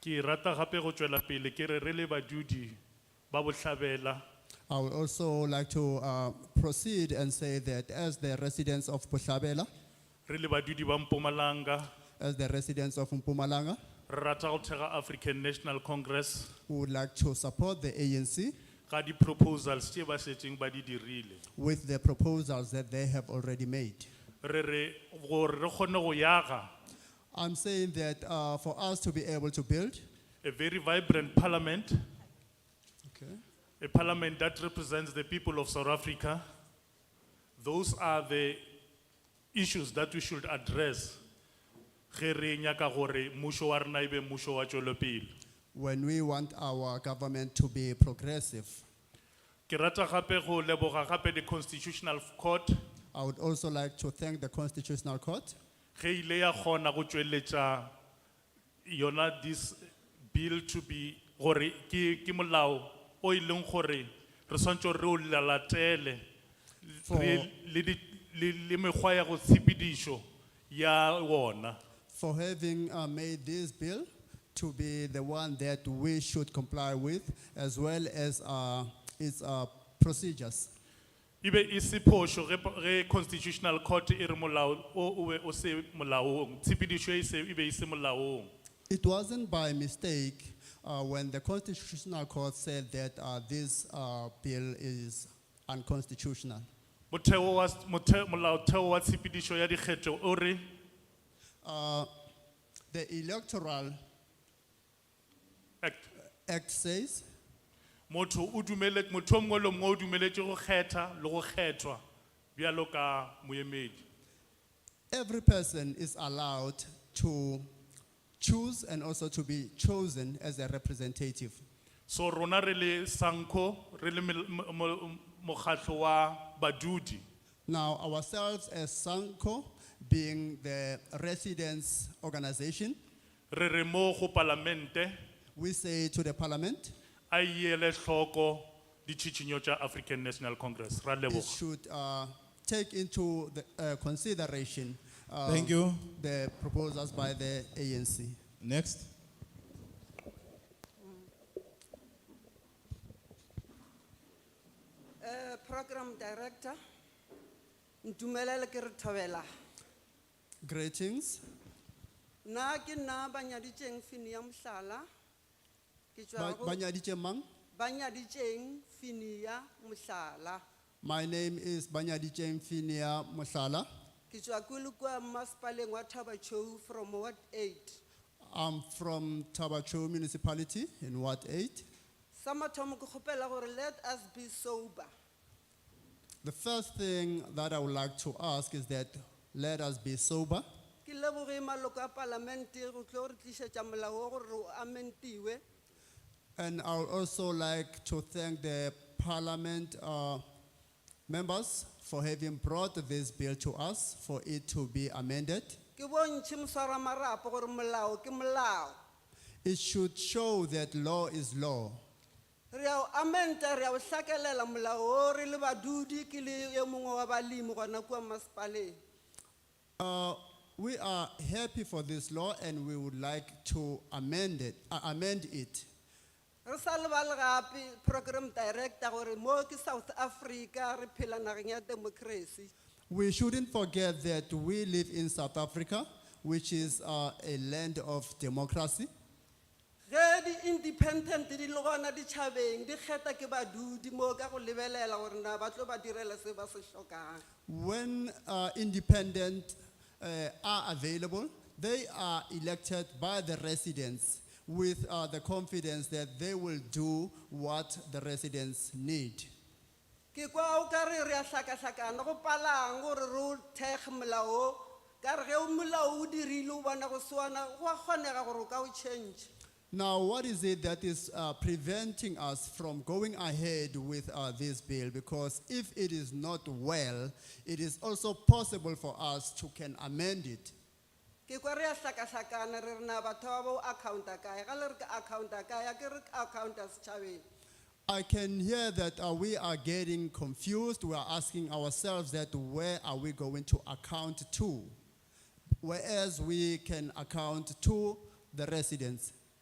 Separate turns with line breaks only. Ki rata hape go tswela pele ke re re le badudi ba botlhabela
I would also like to uh, proceed and say that as the residents of Pushabela,
re le badudi ba Mpumalanga
as the residents of Mpumalanga,
re rata go thega African National Congress
we would like to support the ANC
ka di proposals tse ba setseng ba di dirile
with the proposals that they have already made.
re re gore re kgone go yaga
I'm saying that uh, for us to be able to build,
a very vibrant parliament
okay,
a parliament that represents the people of South Africa those are the issues that we should address ge re nyaka gore mmušo wa rena e be mmušo wa tšwelopele
when we want our government to be progressive,
ke rata gape go leboga gape the constitutional court
I would also like to thank the Constitutional Court
ge ile ya kgona go tšweletša yona this bill to be gore ke ke molao o e leng gore re swantse re o lalatele
For-
re- le di- le le mekgwa ya go tshepedišo ya wona
for having uh, made this bill to be the one that we should comply with, as well as uh, its uh, procedures.
e be e se phošo ge po- ge constitutional court e re molao o o be o se molaong tshepedišo e se- e be e se molaong
It wasn't by mistake uh, when the Constitutional Court said that uh, this uh, bill is unconstitutional.
motheo wa s- mothe- molaotheo wa tshepedišo ya dikgetho o re
Uh, the Electoral
act
Act says
motho o dumele motho o mongwe le o mongwe o dumeletse go kgetha le go kgethwa bjalo ka moemedi
every person is allowed to choose and also to be chosen as a representative.
so rona re le sanco re le mel- mo- mo- mokgatlho wa badudi
Now, ourselves as SANCO, being the residents organization,
re re mo go palamente
we say to the parliament,
a ele tlhoko ditšhitšhinyo tša african national congress ra
it
leboga
should uh, take into the, uh, consideration uh,
Thank you.
the proposals by the ANC.
Next.
Eh, Program Director, ndumelele ke re thobela.
Greetings.
Na ke na banyaditjeng fini ya mohlala.
Ba-
Ke tjwa go
Banyadiche Mang.
banyaditjeng fini ya mohlala.
My name is Banyadiche Finia Musala.
Ke tjwa kulukwa maspaleng wa Thabachou from Ward Eight.
I'm from Tabacho Municipality in Ward 8.
Samathomo ke kgopela gore let us be sober.
The first thing that I would like to ask is that let us be sober.
Ke leboge maloko a parlamente go tlo re tlisetsa molao o gore o amentiwe.
And I would also like to thank the parliament uh, members for having brought this bill to us for it to be amended.
Ke bontšhe mswara marapo gore molao ke molao.
It should show that law is law.
re a o amenta re a o hlakelela molao o re le badudi ke le e mongwe wa balemi gona kua masepaleng
Uh, we are happy for this law and we would like to amend it. Uh, amend it.
re sa lebale gape program director gore mo ke south africa re phela nageng ya democracy
We shouldn't forget that we live in South Africa, which is uh, a land of democracy.
ge di-independent di le gona ditšhabeng di kgetha ke badudi moo ka go lebelela gore na ba tlo ba direla se ba se tlhokang
When uh, independent uh, are available, they are elected by the residents with uh, the confidence that they will do what the residents need.
ke kwa o ka re re a hlakahlakana go palang gore re o thekge molao o ka re ge o molao o dirile o bona go sewana go a kgonega gore o ka o change
Now, what is it that is uh, preventing us from going ahead with uh, this bill? Because if it is not well, it is also possible for us to can amend it.
ke kwa re a hlakahlakana re re na batho ba bo accounta kae ga le re ke accounta kae a ke re ke accounta setšhabeng
I can hear that uh, we are getting confused. We are asking ourselves that where are we going to account to? Whereas we can account to the residents.